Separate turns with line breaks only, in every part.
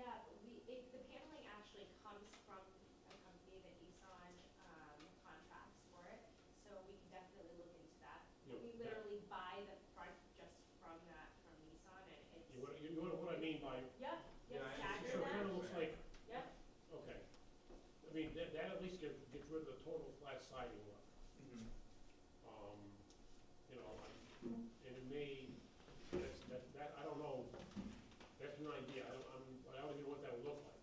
um,
I,
Yep,
yeah,
yes,
I-
tax
so it kinda
that,
looks like,
yep,
okay. I mean, that, that at least gets, gets rid of the total flat siding look.
Mm-hmm.
Um, you know, I- and it may, that's, that, that, I don't know, that's an idea, I don't, I'm, I don't even know what that would look like.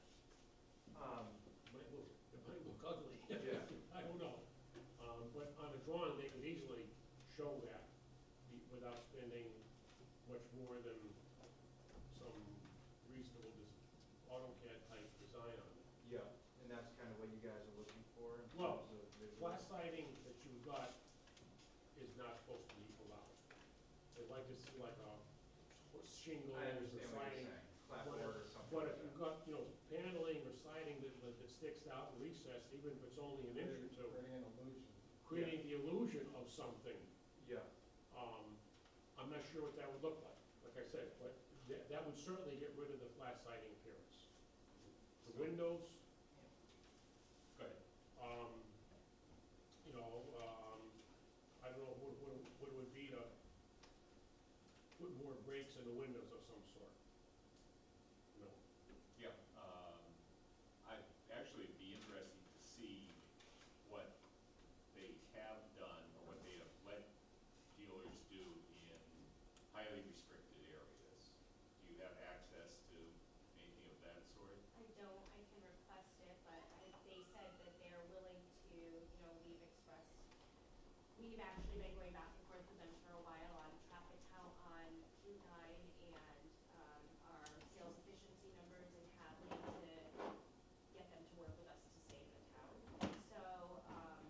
Um,
Might look, it might look ugly.
Yeah.
I don't know. Um, but on a drawing, they could easily show that be- without spending much more than some reasonable des- AutoCAD type design on it.
yeah, and that's kind of what you guys are looking for in
Well,
terms of
The
visual.
flat siding that you got is not supposed to be allowed. They like to see like a shingle
I
or
understand what you're
siding.
saying, clapboard
whatever.
or something
But if
like that.
you've got, you know, paneling or siding that, that- that sticks out and recessed, even if it's only an inch or two,
Creating an illusion.
creating the illusion of something.
Yeah,
Um, I'm not sure what that would look like, like I said, but that, that would certainly get rid of the flat siding appearance. The windows, go ahead, um, you know, um, I don't know, what, what, what it would be to put more breaks in the windows of some sort? No,
Yeah, um, I'd actually be interested to see what they have done or what they have let dealers do in highly restricted areas. Do you have access to anything of that sort?
I don't, I can request it, but I, they said that they're willing to, you know, we've expressed, we've actually been going back and forth with them for a while on traffic count on Route nine and, um, our sales efficiency numbers and having to get them to work with us to save the town. So, um,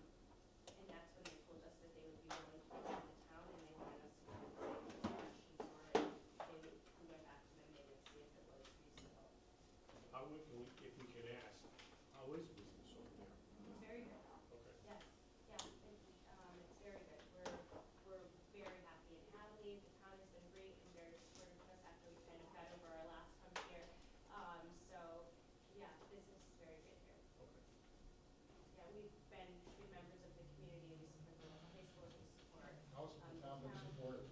and that's when they told us that they would be willing to work with the town and they wanted us to go and save the questions for it. They, we went back to them, they didn't see if it was reasonable.
how would, can we- if we can ask, how is business over there?
It's very good,
Okay,
yes, yeah, it, um, it's very good, we're, we're very happy in Hadley, the town has been great and very supportive of us after we kind of got over our last hump here. Um, so, yeah, business is very good here,
okay.
yeah, we've been good members of the community, we support the local high schools, we support,
How's the town been supportive?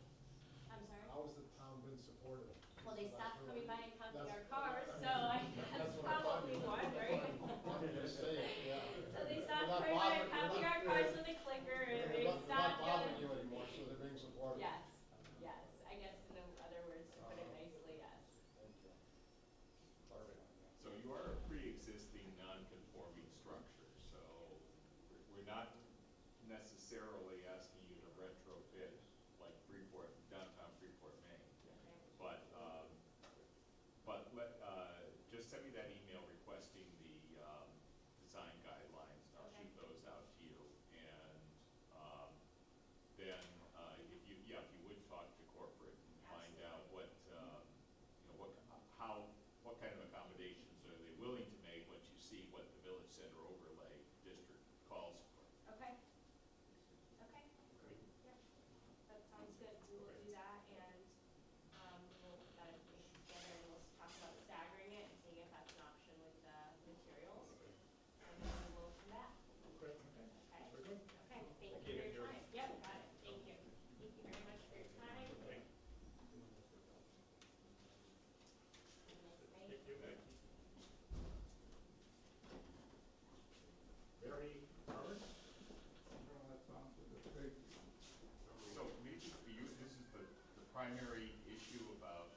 Um, I'm sorry.
How has the town been supportive?
Well, they stopped coming by and counting our
That's-
cars, so I, that's probably one, right?
I'm just saying, yeah.
So they
We're not
stopped coming by and
bothering-
counting our
we're not-
cars with a clicker and
We're
they
not-
stopped. doing-
we're not bothering you anymore, so they're being supportive.
Yes, yes, I guess in other words, to put it nicely, yes.
Thank you. Clarifying that.
So you are a pre-existing non-conforming structure, so we're- we're not necessarily asking you to retrofit like Freeport, downtown Freeport, Maine. But, um, but let, uh, just send me that email requesting the, um, design guidelines, and I'll shoot those out to you. And, um, then, uh, if you, yeah, if you would talk to corporate and find out what, um, you know, what, how, what kind of accommodations are they willing to make once you see what the village center overlay district calls for?
Okay, okay,
Great.
yeah, that sounds good, we will do that, and, um, we'll put that information together, and we'll talk about staggering it, and seeing if that's an option with the materials, and then we'll come back,
Okay,
okay?
very good.
Okay, thank you for your time, yeah, got it, thank you, thank you very much for your time.
Thank
Thank
Thank
you.
you. Mary Harvard?
So maybe for you, this is the, the primary issue about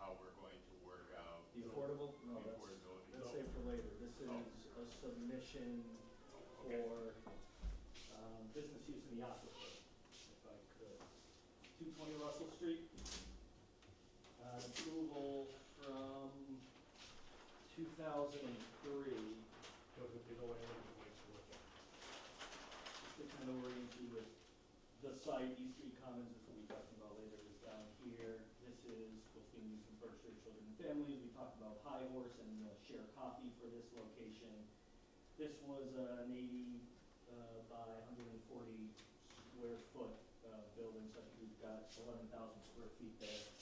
how we're going to work out
The affordable, no, that's,
affordability. Oh.
that's saved for later, this is a submission for, um, business use in the aquifer, if I could. Two twenty Russell Street, uh, approval from two thousand and three,
Those would be the way I would like to look at
just to kind of orient you with the site, East Street Commons, which we'll be talking about later, is down here. This is what's being used for first grade children and families, we talked about High Horse and the Share Coffee for this location. This was uh, an eighty uh, by hundred and forty square foot uh, building, so I think we've got eleven thousand square feet there.